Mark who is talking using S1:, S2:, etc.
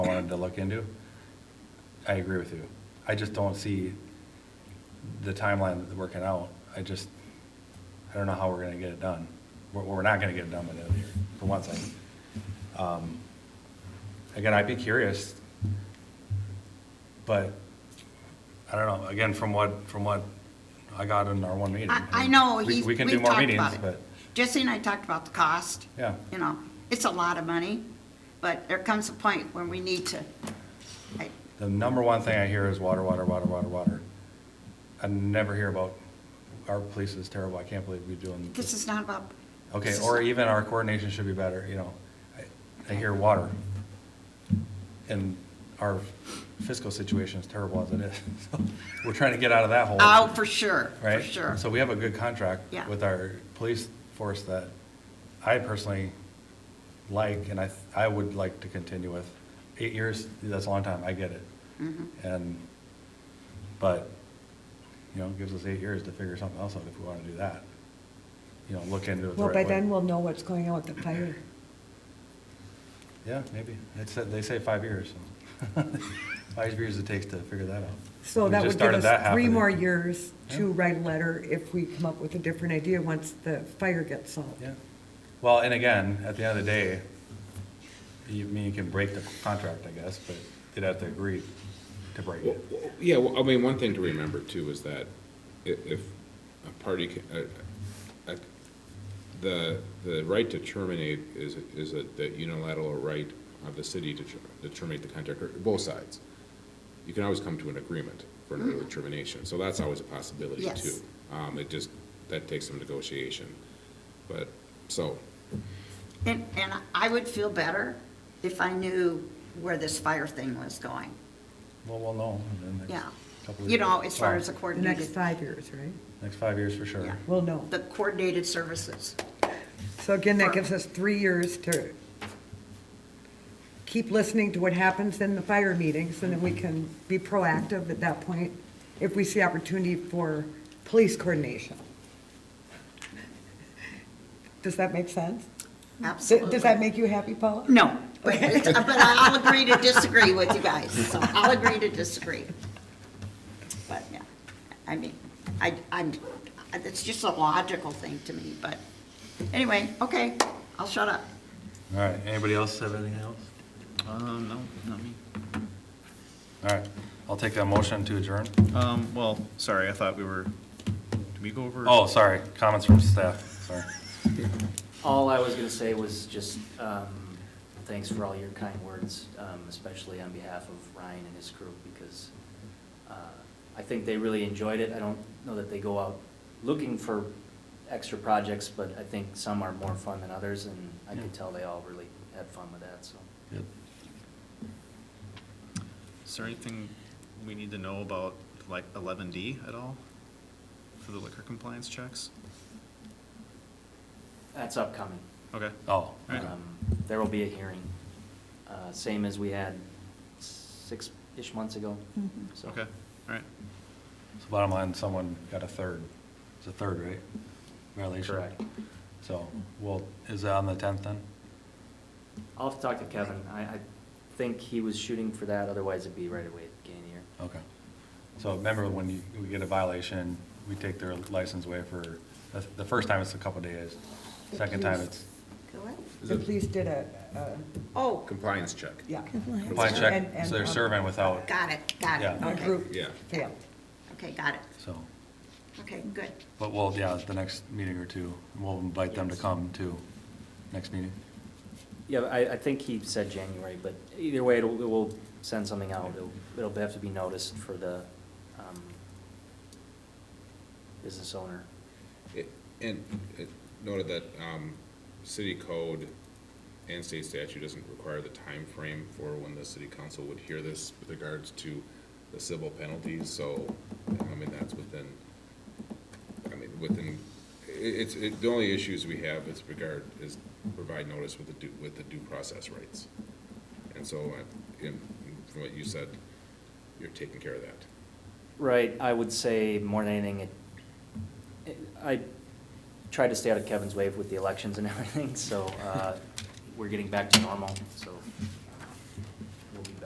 S1: wanted to look into, I agree with you. I just don't see the timeline that they're working out. I just, I don't know how we're gonna get it done. We're, we're not gonna get it done by the end of the year, for one thing. Um, Again, I'd be curious, but I don't know, again, from what, from what I got in our one meeting.
S2: I, I know,
S1: We-
S2: he's,
S1: We
S2: we've
S1: can do more
S2: talked
S1: meetings,
S2: about it.
S1: but,
S2: Jesse and I talked about the cost.
S1: Yeah.
S2: You know, it's a lot of money, but there comes a point when we need to, I,
S1: The number one thing I hear is water, water, water, water, water. I never hear about, our police is terrible, I can't believe we're doing,
S2: this is not about.
S1: okay,
S2: this is
S1: or
S2: not-
S1: even our coordination should be better, you know. I- I hear water. And our fiscal situation is terrible as it is. So We're trying to get out of that hole.
S2: Oh, for sure, for
S1: right?
S2: sure.
S1: So we have a good contract
S2: Yeah.
S1: with our police force that I personally like, and I, th- I would like to continue with. Eight years, that's a long time, I get it.
S2: Mm-hmm.
S1: And, but, you know, it gives us eight years to figure something else out if we want to do that. You know, look into it the
S3: Well,
S1: right
S3: by
S1: way.
S3: then we'll know what's going on with the fire.
S1: Yeah, maybe. It said, they say five years, so. Five years it takes to figure that out.
S3: So
S1: We just
S3: that would give
S1: started that
S3: us
S1: half
S3: three
S1: of the-
S3: more years to
S1: Yeah.
S3: write a letter if we come up with a different idea once the fire gets solved.
S1: Yeah. Well, and again, at the end of the day, you, I mean, you can break the contract, I guess, but you'd have to agree to break
S4: Well,
S1: it.
S4: well, Yeah, well, I mean, one thing to remember too is that i- if a party, ca- a- a- the, the right to terminate is, is a- the unilateral right of the city to ter- to terminate the contract, or both sides. You can always come to an agreement for an early termination, so that's always a possibility
S2: Yes.
S4: too. Um, It just, that takes some negotiation, but, so,
S2: And, and I would feel better if I knew where this fire thing was going,
S1: Well, we'll know in the next
S2: yeah.
S1: couple of years.
S2: You know, as far as the
S1: Well,
S3: The next
S2: coordinated,
S3: five years, right?
S1: Next five years for sure.
S2: Yeah.
S3: We'll know.
S2: the coordinated services.
S3: So again, that gives us three years to keep listening to what happens in the fire meetings, and then we can be proactive at that point if we see opportunity for police coordination. Does that make sense? Does-
S2: Absolutely.
S3: Does that make you happy, Paula?
S2: No, but, but I'll agree to disagree with you guys, so I'll agree to disagree. But, yeah, I mean, I, I'm, it's just a logical thing to me, but, anyway, okay, I'll shut up.
S1: All right, anybody else have anything else?
S5: Um, no, not me.
S1: All right, I'll take a motion to adjourn.
S5: Um, well, sorry, I thought we were, did we go over?
S1: Oh, sorry, comments from staff, sorry.
S6: All I was gonna say was just, um, thanks for all your kind words, um, especially on behalf of Ryan and his crew, because, uh, I think they really enjoyed it. I don't know that they go out looking for extra projects, but I think some are more fun than others, and I could
S1: Yeah.
S6: tell they all really had fun with that, so.
S5: Is there anything we need to know about like eleven D at all? For the liquor compliance checks?
S6: That's upcoming.
S5: Okay,
S1: Oh, okay.
S6: Um, There will be a hearing, uh, same as we had six-ish months ago, so.
S5: okay, all right.
S1: So bottom line, someone got a third. It's a third, right? Violation.
S6: Correct.
S1: So, well, is that on the tenth then?
S6: I'll have to talk to Kevin. I, I think he was shooting for that, otherwise it'd be right away at the beginning of the year.
S1: Okay. So remember when you, we get a violation, we take their license away for, the, the first time it's a couple days. Second time it's,
S3: The police did a, a-
S2: Oh,
S4: compliance check.
S3: yeah.
S1: compliance
S3: And-
S1: check,
S3: and,
S1: so they're
S3: um,
S1: serving without,
S2: got it, got it,
S1: Yeah.
S3: A
S2: okay,
S3: group
S4: Yeah.
S3: failed.
S2: okay, got it,
S1: so.
S2: okay, good.
S1: But we'll, yeah, the next meeting or two, we'll invite them to come to next meeting.
S6: Yeah, I, I think he said January, but either way, it'll, it will send something out. It'll, it'll have to be noticed for the, um, business owner.
S4: It- And it noted that um, city code and state statute doesn't require the time frame for when the city council would hear this with regards to the civil penalties, so, I mean, that's within, I mean, within, i- it's, it- the only issues we have is regard, is provide notice with the due, with the due process rights. And so, I- in- from what you said, you're taking care of that.
S6: Right, I would say more than anything, it, it- I tried to stay out of Kevin's wave with the elections and everything, so, uh, we're getting back to normal, so